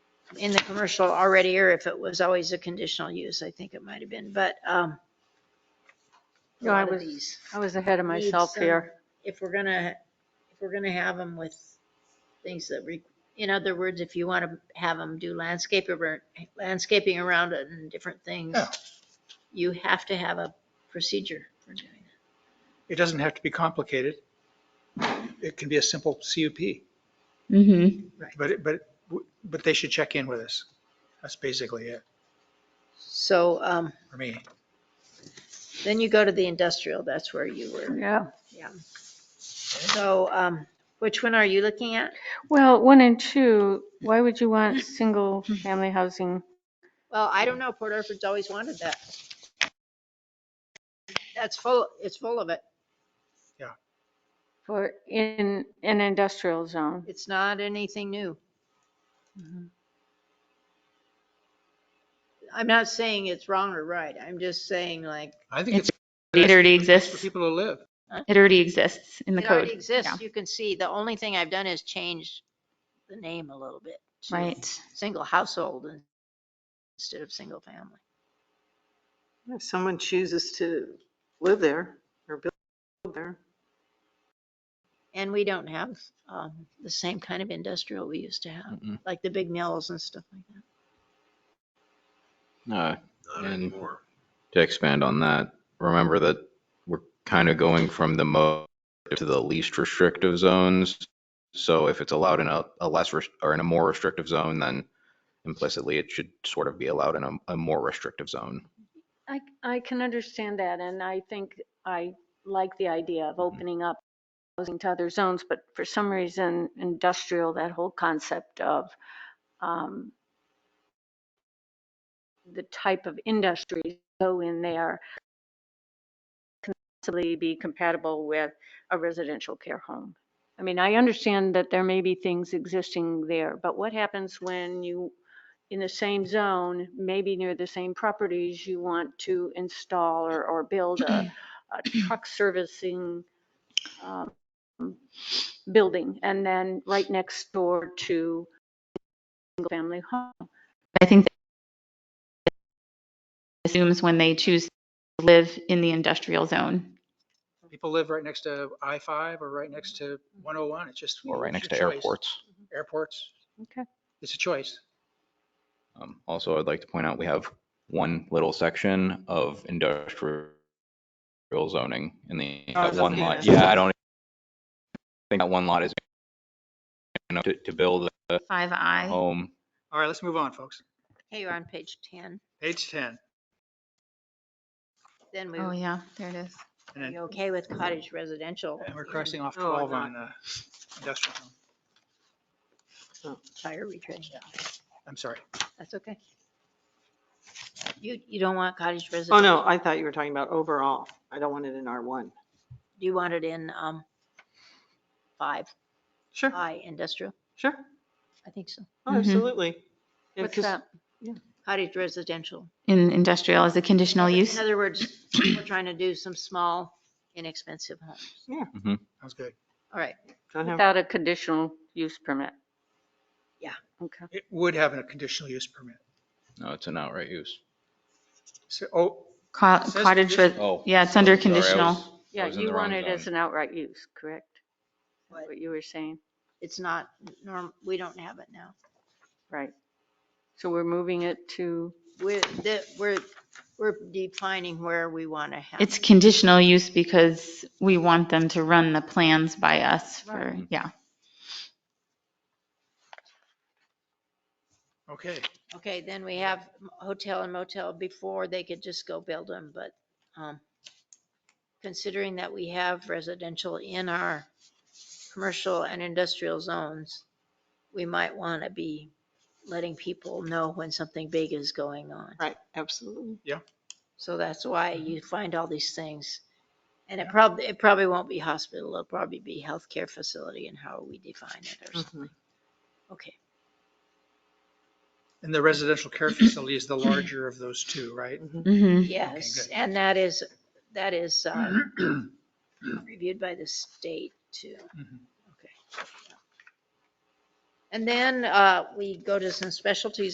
in the commercial already, or if it was always a conditional use, I think it might have been, but, um, a No, I lot of was these I was ahead of need myself some- here. If we're gonna, if we're gonna have them with things that, re- in other words, if you want to have them do landscape, ar- landscaping around it and different things, Yeah. you have to have a procedure for doing that. It doesn't have to be complicated. It can be a simple CUP, Mm-hmm. but, it- but, but they should check in with us. That's basically it So, um, for me. then you go to the industrial, that's where you were, Yeah. yeah. So, um, which one are you looking at? Well, one and two, why would you want single-family housing? Well, I don't know. Port Orford's always wanted that. That's full, it's full of it. For, in an industrial zone. It's not anything new. I'm not saying it's wrong or right. I'm just saying like, I think it's It already for exists. people to live. It already exists in the it already code. exists. Yeah. You can see, the only thing I've done is change the name a little bit. to Right. Single household in- instead of single family. If someone chooses to live there or build there, And we don't have, um, the same kind of industrial we used to have, Mm-mm. like the big mills and stuff like that. No, and to expand on that, remember that we're kind of going from the most to the least restrictive zones. So if it's allowed in a, a less res- or in a more restrictive zone, then implicitly it should sort of be allowed in a, a more restrictive zone. I, I can understand that, and I think I like the idea of opening up housing to other zones, but for some reason, industrial, that whole concept of um, the type of industries go in there can possibly be compatible with a residential care home. I mean, I understand that there may be things existing there, but what happens when you in the same zone, maybe near the same properties, you want to install or, or build a, a truck servicing um, building, and then right next door to single-family home. I think that assumes when they choose to live in the industrial zone. People live right next to I-5 or right next to 101. It's just. Or right it's next your to choice. airports. Airports. Okay. It's a choice. Um, also, I'd like to point out, we have one little section of industrial zoning in the, Oh, that it's one okay. lot. Yeah, I don't think that one lot is enough to, to build a Five I. home. All right, let's move on, folks. Hey, you're on page 10. Page 10. Then we, Oh, yeah, there it is. And then you okay with cottage residential? Oh, and we're crossing off Oh, No, 12 not. on uh, industrial. Fire retreat. I'm sorry. That's okay. You, you don't want cottage residential? oh no, I thought you were talking about overall. I don't want it in R1. Do you want it in, um, five, Sure, I industrial? sure. I think so. Oh, Mhm. Absolutely. Yeah, Mm-hmm. What's 'cause- that? Cottage residential. In industrial as a conditional use. In other words, we're trying to do some small, inexpensive homes. Sounds good. All right. Don't Uh-huh. have, Without a conditional use permit? Yeah. Okay. It would have a conditional use permit. No, it's an outright use. So, oh, Co- It says Cottage, res- Oh. yeah, it's under Sorry, I was- conditional. I Yeah, was in you the wrong want it as zone. an outright use, correct? What? That's What you were saying, It's not norm, we don't have it now. right. So we're moving it to, We're, the, we're, we're defining where we want to have. It's conditional use because we want them to run the plans by us for, Right. yeah. okay. Okay, then we have m- hotel and motel before they could just go build them, but, um, considering that we have residential in our commercial and industrial zones, we might want to be letting people know when something big is going on. right, absolutely. So that's why you find all these things. And it probably, it probably won't be hospital, it'll probably be healthcare facility and how we define it or something. Mhm. Okay, And the residential care facility is the larger of those two, right? Mm-hmm. yes, good. and that is, that is, um, reviewed by the state too. Mhm. Okay. And then uh, we go to some specialties